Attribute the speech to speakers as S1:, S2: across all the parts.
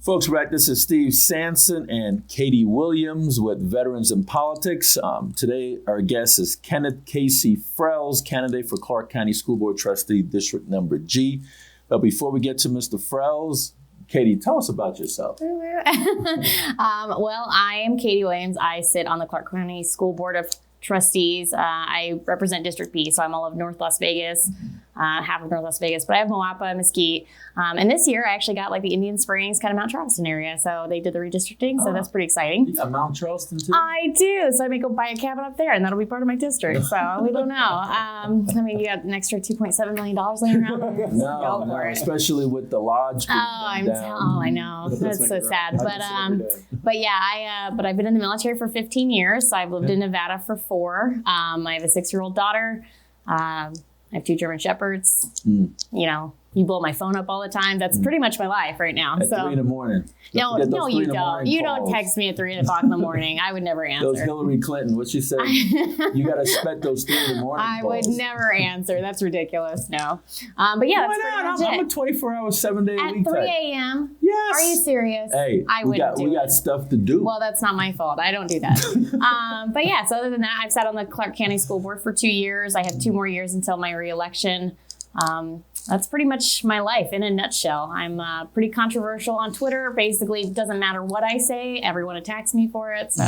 S1: folks, right, this is Steve Sanson and Katie Williams with Veterans in Politics. Um, today, our guest is Kenneth Casey Frells, candidate for Clark County School Board Trustee, District Number G. But before we get to Mr. Frells, Katie, tell us about yourself.
S2: um, well, I am Katie Williams. I sit on the Clark County School Board of Trustees. Uh, I represent District B, so I'm all of North Las Vegas, uh, half of North Las Vegas, but I have Moapa, Mesquite. Um, and this year I actually got like the Indian Springs, kind of Mount Charleston area. So they did the redistricting, so
S1: Oh.
S2: that's pretty exciting.
S1: You got Mount Charleston, too?
S2: I do. So I may go buy a cabin up there, and that'll be part of my district. So we don't know. Um, I mean, you got an extra two point seven million dollars laying around.
S1: no,
S2: go
S1: no,
S2: for it.
S1: especially with the lodge.
S2: Oh, I'm
S1: down.
S2: tell- oh, I know. That's so sad. But um, but yeah, I uh, but I've been in the military for 15 years. So I've lived in Nevada for four. Um, I have a six-year-old daughter. Um, I have two German shepherds.
S1: Mm.
S2: You know, you blow my phone up all the time. That's pretty much my life right now.
S1: Hmm. At three in
S2: so
S1: the morning.
S2: no,
S1: Get those
S2: no,
S1: three
S2: you
S1: in the
S2: don't.
S1: morning
S2: You
S1: calls.
S2: don't text me at three o'clock in the morning. I would never
S1: Those
S2: answer.
S1: Hillary Clinton, what she said, you got to expect those three in the morning.
S2: I would
S1: calls.
S2: never answer. That's ridiculous. No, um, but yeah,
S1: Why
S2: that's
S1: not?
S2: pretty
S1: I'm, I'm
S2: much
S1: a 24 hour, seven day a
S2: it.
S1: week
S2: At 3
S1: type.
S2: a.m.
S1: Yes.
S2: Are you serious?
S1: Hey,
S2: I
S1: we
S2: wouldn't
S1: got
S2: do
S1: we
S2: it.
S1: got stuff to do.
S2: Well, that's not my fault. I don't do that. um, but yeah, so other than that, I've sat on the Clark County School Board for two years. I have two more years until my reelection. Um, that's pretty much my life in a nutshell. I'm uh, pretty controversial on Twitter. Basically, it doesn't matter what I say, everyone attacks me for it. So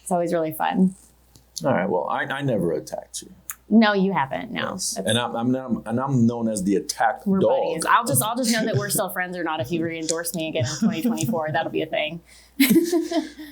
S2: it's always really fun.
S1: All right. Well, I, I never attacked you.
S2: No, you haven't. No.
S1: Yes.
S2: That's-
S1: And I'm, I'm not, and I'm known as the attack
S2: we're
S1: dog.
S2: buddies. I'll just I'll just know that we're still friends or not if you re-endorse me again in 2024. That'll be a thing.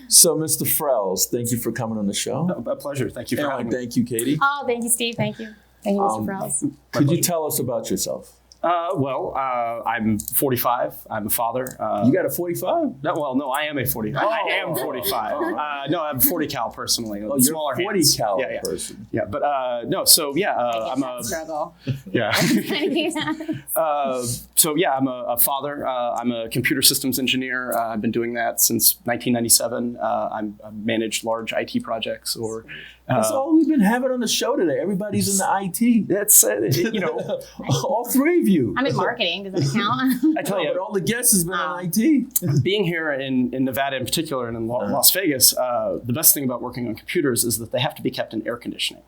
S1: So, Mr. Frells, thank you for coming on the show.
S3: A pleasure. Thank you for
S1: And I
S3: having me.
S1: thank you, Katie.
S2: Oh, thank you, Steve. Thank you. Thank you, Mr.
S1: Um,
S2: Prowse.
S1: Could you
S3: pleasure.
S1: tell us about yourself?
S3: Uh, well, uh, I'm 45. I'm a father. Uh,
S1: You got a 45?
S3: no, well, no, I am a 40. I am 45.
S1: Oh.
S3: Uh, no, I'm 40 cal personally.
S1: Oh, you're
S3: smaller
S1: 40
S3: hands.
S1: cal
S3: Yeah, yeah.
S1: person.
S3: yeah. But uh, no, so yeah, uh, I'm a
S2: struggle.
S3: yeah.
S2: yeah.
S3: Uh, so yeah, I'm a, a father. Uh, I'm a computer systems engineer. Uh, I've been doing that since 1997. Uh, I'm, I've managed large IT projects or.
S2: Uh,
S1: That's all we've been having on the show today. Everybody's in the IT.
S3: That's uh, you know.
S1: all three of you.
S2: I'm in marketing. Does that count?
S3: I tell
S1: No,
S3: you,
S1: but all the guests has been on
S2: Ah.
S1: IT.
S3: being here in, in Nevada in particular and in La- Las Vegas, uh, the best thing about working on computers is that they have to be kept in air conditioning.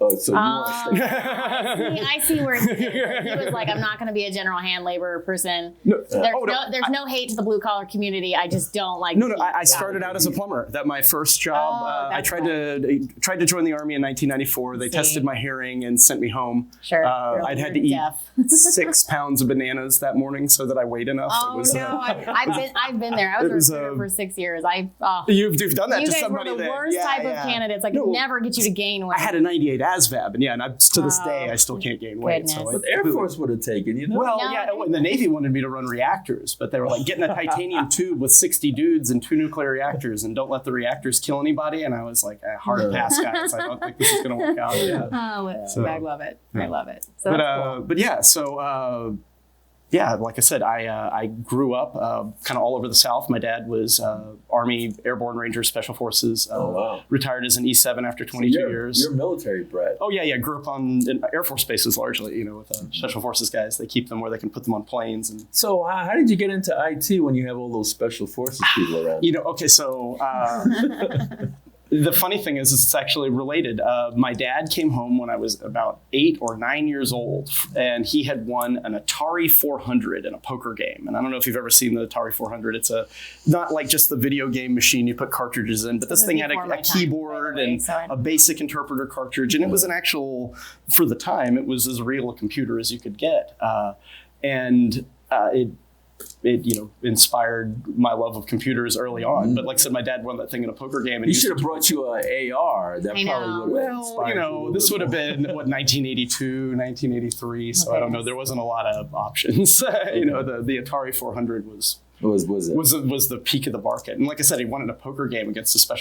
S1: Oh, so you want
S2: Um, I see where he he was like, I'm not going to be a general hand labor person.
S3: No,
S2: There's,
S3: oh,
S2: no,
S3: no,
S2: there's no hate to the blue collar community. I just don't like.
S3: no, no.
S2: people.
S3: I, I started out as a plumber. That my first job.
S2: Oh,
S3: uh, I
S2: that's
S3: tried to tried to join the army in 1994. They
S2: See.
S3: tested my hearing and sent me home.
S2: sure.
S3: uh,
S2: You're-
S3: I'd had
S2: you're
S3: to eat-
S2: deaf.
S3: Six pounds of bananas that morning so that I weighed enough.
S2: Oh
S3: It was,
S2: no,
S3: uh,
S2: I, I've been I've been there. I was
S3: It
S2: a
S3: was,
S2: recruiter
S3: uh,
S2: for six years. I uh, you
S3: you've, you've done that to
S2: guys were
S3: somebody.
S2: the
S3: that-
S2: worst
S3: yeah,
S2: type of
S3: yeah.
S2: candidates. I could
S3: No,
S2: never get you to gain weight.
S3: I had a 98 ASVAB, and yeah, and I, to this
S2: Oh,
S3: day I still can't gain weight. So
S2: goodness.
S3: I-
S1: But the Air Force would have taken, you know?
S3: Well,
S2: No,
S3: yeah,
S2: I-
S3: and the Navy wanted me to run reactors, but they were like, get in a titanium tube with 60 dudes and two nuclear reactors and don't let the reactors kill anybody. And I was like, a hard pass, guys. I don't think this is going to work out. Yeah.
S2: Oh,
S3: So-
S2: I love it. I
S3: Yeah.
S2: love it. So
S3: But,
S2: that's
S3: uh,
S2: cool.
S3: but yeah, so uh, yeah, like I said, I, uh, I grew up uh, kind of all over the South. My dad was uh, Army Airborne Ranger Special Forces, uh,
S1: Oh, wow.
S3: retired as an E7 after 22
S1: you're,
S3: years.
S1: You're military bred.
S3: Oh yeah, yeah. Grew up on in Air Force bases largely, you know, with uh, special forces guys. They keep them where they can put them on planes and
S1: So how, how did you get into IT when you have all those special forces people around?
S3: You know, okay, so uh, the funny thing is, is it's actually related. Uh, my dad came home when I was about eight or nine years old, and he had won an Atari 400 in a poker game. And I don't know if you've ever seen the Atari 400. It's a not like just the video game machine you put cartridges in, but
S2: This
S3: this,
S2: is
S3: thing had a,
S2: before my
S3: a
S2: time,
S3: keyboard
S2: by the way,
S3: and
S2: so I
S3: a
S2: don't-
S3: basic interpreter cartridge, and it was an actual for the time. It was as real a computer as you could get, uh, and uh, it it you know inspired my love of computers early on. But like I said, my dad won that thing in a poker game, and
S1: he
S3: used
S1: should have
S3: to-
S1: brought you an AR. That
S2: I know.
S1: probably would have
S3: Well, you know, this would have been what 1982, 1983. So I don't know. There wasn't a lot of options. you know, the, the Atari 400 was
S1: Was was it?
S3: was was the peak of the market. And like I said, he won in a poker game against a special.